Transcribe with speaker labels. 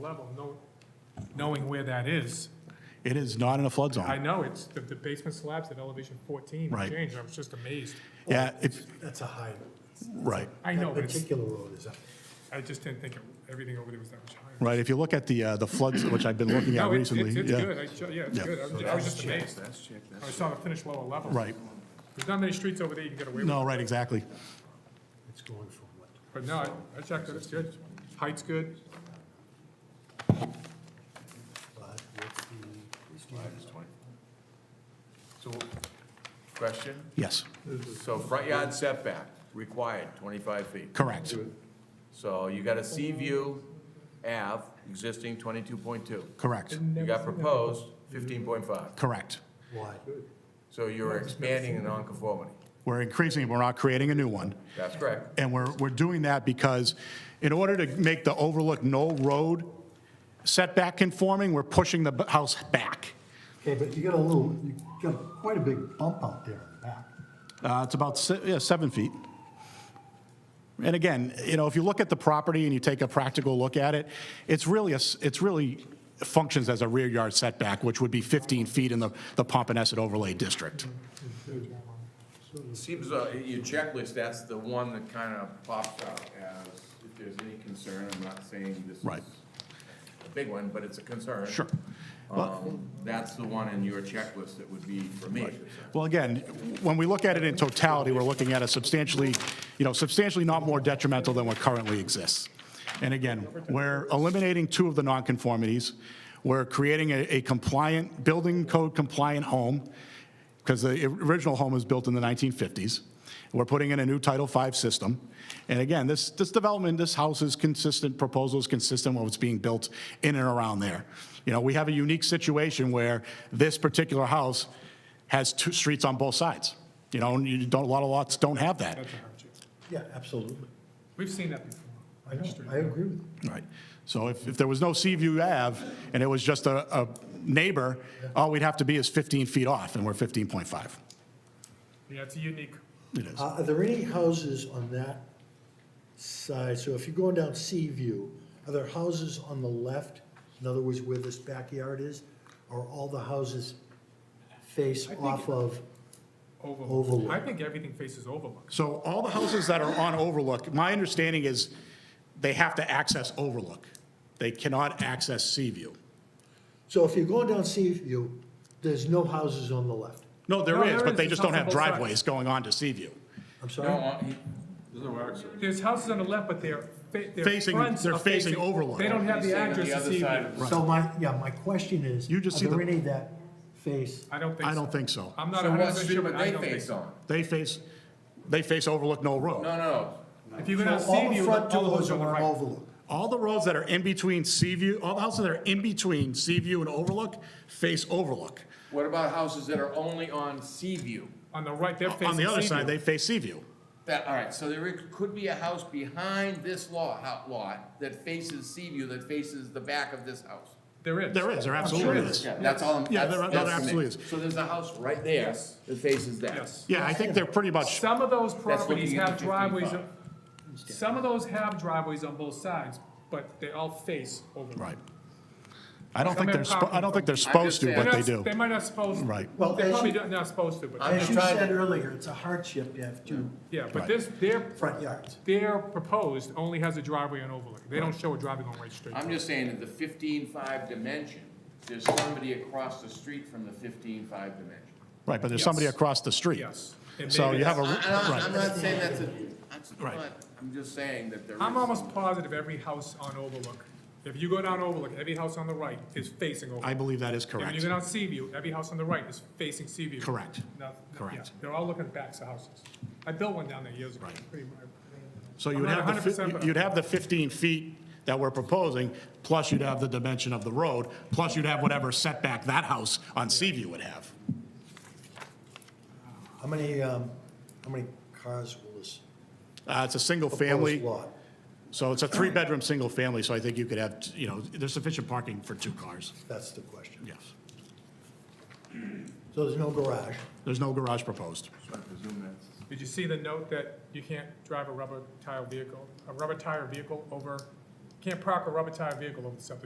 Speaker 1: level, know- knowing where that is.
Speaker 2: It is not in a flood
Speaker 1: I
Speaker 2: zone.
Speaker 1: know it's, the the basement slabs at elevation 14
Speaker 2: Right.
Speaker 1: changed, I was just amazed.
Speaker 2: Yeah, if,
Speaker 3: That's a high,
Speaker 2: right,
Speaker 1: I know,
Speaker 3: that
Speaker 1: but it's-
Speaker 3: particular road is, a-
Speaker 1: I just didn't think it- everything over there was that much higher.
Speaker 2: right. If you look at the, uh, the floods, which I've been looking at
Speaker 1: No, it's,
Speaker 2: recently.
Speaker 1: it's it's
Speaker 2: yeah,
Speaker 1: good, I, ju- yeah, it's
Speaker 2: Yeah.
Speaker 1: good, I was- I was just amazed. I saw the finished lower level.
Speaker 2: Right.
Speaker 1: There's not many streets over there you can get away with.
Speaker 2: No, right, exactly.
Speaker 3: it's going from what?
Speaker 1: But no, I- I checked it, it's good. Height's good,
Speaker 3: But what's the-
Speaker 4: So, question,
Speaker 2: Yes,
Speaker 4: so front yard setback required twenty-five feet.
Speaker 2: correct.
Speaker 4: So you got a sea view Ave, existing twenty-two point two.
Speaker 2: Correct.
Speaker 4: You got proposed fifteen point five.
Speaker 2: Correct.
Speaker 3: Why?
Speaker 4: So you're expanding the nonconformity.
Speaker 2: We're increasing, we're not creating a new one.
Speaker 4: That's correct.
Speaker 2: And we're, we're doing that because in order to make the overlook no road setback conforming, we're pushing the b- house back.
Speaker 3: Okay, but you got a little, you got quite a big bump out there in the back.
Speaker 2: Uh, It's about, se- yeah, seven feet. And again, you know, if you look at the property and you take a practical look at it, it's really, a s- it's really functions as a rear yard setback, which would be 15 feet in the the Pompanesett overlay district.
Speaker 4: Seems, uh, your checklist, that's the one that kind of pops out as, if there's any concern, I'm not saying this is
Speaker 2: Right.
Speaker 4: a big one, but it's a concern.
Speaker 2: Sure.
Speaker 4: Um, that's the one in your checklist that would be for me.
Speaker 2: Well, again, when we look at it in totality, we're looking at a substantially, you know, substantially not more detrimental than what currently exists. And again, we're eliminating two of the nonconformities. We're creating a a compliant, building code compliant home, because the original home was built in the 1950s. We're putting in a new Title V system. And again, this, this development, this house is consistent, proposal is consistent with what's being built in and around there. You know, we have a unique situation where this particular house has two streets on both sides. You know, and you don't, a lot of lots don't have that.
Speaker 1: that's a hardship.
Speaker 3: Yeah, absolutely.
Speaker 1: We've seen that before.
Speaker 3: I know, I agree with you.
Speaker 2: Right. So if, if there was no Seaview Ave and it was just a, a neighbor, all we'd have to be is 15 feet off, and we're 15.5.
Speaker 1: Yeah, it's a unique,
Speaker 2: It is.
Speaker 3: Uh, Are there any houses on that side? So if you're going down Sea View, are there houses on the left? In other words, where this backyard is? Or all the houses face off of?
Speaker 1: overlook.
Speaker 3: Overlook.
Speaker 1: I think everything faces overlook.
Speaker 2: So all the houses that are on Overlook, my understanding is they have to access Overlook. They cannot access Seaview.
Speaker 3: So if you're going down Sea View, there's no houses on the left.
Speaker 2: No,
Speaker 1: No,
Speaker 2: there is,
Speaker 1: there
Speaker 2: but
Speaker 1: is.
Speaker 2: they
Speaker 1: It's
Speaker 2: just don't
Speaker 1: on
Speaker 2: have
Speaker 1: both sides.
Speaker 2: driveways going on to Seaview.
Speaker 3: I'm sorry?
Speaker 4: No, uh, he, doesn't work, sir.
Speaker 1: There's houses on the left, but they're, their
Speaker 2: Facing-
Speaker 1: fronts
Speaker 2: they're
Speaker 1: are
Speaker 2: facing
Speaker 1: facing.
Speaker 2: overlook.
Speaker 1: They don't have the address to see.
Speaker 3: So my, yeah, my question is,
Speaker 2: You just see
Speaker 3: are there
Speaker 2: the-
Speaker 3: any that face?
Speaker 1: I don't think so.
Speaker 2: I don't think so.
Speaker 1: I'm not
Speaker 4: So
Speaker 1: a
Speaker 4: what
Speaker 1: hundred percent
Speaker 4: street
Speaker 1: sure,
Speaker 4: would
Speaker 1: but I
Speaker 4: they
Speaker 1: don't think
Speaker 4: face
Speaker 1: so.
Speaker 4: on?
Speaker 2: They face, they face Overlook No Road.
Speaker 4: No, no,
Speaker 1: If you're
Speaker 3: So
Speaker 1: gonna
Speaker 3: all
Speaker 1: see
Speaker 3: the
Speaker 1: you,
Speaker 3: front
Speaker 1: all
Speaker 3: doors
Speaker 1: those
Speaker 3: are
Speaker 1: on the
Speaker 3: on
Speaker 1: right.
Speaker 3: Overlook.
Speaker 2: All the roads that are in between Seaview, all the houses that are in between Seaview and Overlook face Overlook.
Speaker 4: What about houses that are only on Sea View?
Speaker 1: On the right, they're facing
Speaker 2: On the other
Speaker 1: Seaview.
Speaker 2: side, they face Seaview.
Speaker 4: That, all right, so there could be a house behind this lot, hou- lot, that faces Sea View, that faces the back of this house.
Speaker 1: There is.
Speaker 2: There is, there absolutely
Speaker 4: There is,
Speaker 2: is.
Speaker 4: yeah, That's all, I'm-
Speaker 2: Yeah,
Speaker 4: that's,
Speaker 2: there-
Speaker 4: that's.
Speaker 2: there
Speaker 4: to me.
Speaker 2: absolutely is.
Speaker 4: So there's a house right there that faces that.
Speaker 1: Yes.
Speaker 2: Yeah, I think they're pretty much,
Speaker 1: Some of those
Speaker 4: looking
Speaker 1: properties
Speaker 4: into
Speaker 1: have driveways,
Speaker 4: 55.
Speaker 1: on- some of those have driveways on both sides, but they all face overlook.
Speaker 2: right. I don't
Speaker 1: Some
Speaker 2: think
Speaker 1: have
Speaker 2: they're, spo- I don't think they're
Speaker 4: parking.
Speaker 2: supposed to,
Speaker 4: I'm just
Speaker 2: but they
Speaker 1: They're
Speaker 2: do.
Speaker 1: not- They might not supposed.
Speaker 2: Right.
Speaker 3: Well,
Speaker 1: They're
Speaker 3: as
Speaker 1: probably
Speaker 3: you-
Speaker 1: not not supposed to, but,
Speaker 4: I'm-
Speaker 3: As you
Speaker 4: trying to-
Speaker 3: said earlier, it's a hardship to have two
Speaker 1: yeah, but this, their,
Speaker 3: front yards.
Speaker 1: their proposed only has a driveway on overlook. They don't show a driveway on Right Street.
Speaker 4: I'm just saying that the fifteen-five dimension, there's somebody across the street from the fifteen-five dimension.
Speaker 2: Right, but there's somebody
Speaker 1: Yes.
Speaker 2: across the street.
Speaker 1: Yes. And
Speaker 2: So
Speaker 1: maybe
Speaker 2: you have a,
Speaker 4: I,
Speaker 2: right.
Speaker 4: am not saying that's a, that's
Speaker 2: Right.
Speaker 4: not, I'm just saying that there is.
Speaker 1: I'm almost positive every house on Overlook, if you go down Overlook, every house on the right is facing
Speaker 2: I
Speaker 1: Overlook.
Speaker 2: believe that is
Speaker 1: If you
Speaker 2: correct.
Speaker 1: go down Seaview, every house on the right is facing Seaview.
Speaker 2: Correct.
Speaker 1: No-
Speaker 2: Correct.
Speaker 1: yeah, They're all looking at backs of houses. I built one down there years ago.
Speaker 2: Right.
Speaker 1: Pretty much.
Speaker 2: So you
Speaker 1: I'm
Speaker 2: would
Speaker 1: not
Speaker 2: have, the
Speaker 1: 100%,
Speaker 2: fi-
Speaker 1: but-
Speaker 2: you'd have the 15 feet that we're proposing, plus you'd have the dimension of the road, plus you'd have whatever setback that house on Seaview would have.
Speaker 3: How many, um, how many cars will this
Speaker 2: Uh, It's a single
Speaker 3: proposed
Speaker 2: family,
Speaker 3: lot?
Speaker 2: so it's a three-bedroom, single family, so I think you could have, you know, there's sufficient parking for two cars,
Speaker 3: That's the question.
Speaker 2: yes.
Speaker 3: So there's no garage.
Speaker 2: There's no garage proposed.
Speaker 1: Did you see the note that you can't drive a rubber tire vehicle, a rubber tire vehicle over, can't park a rubber tire vehicle over the septic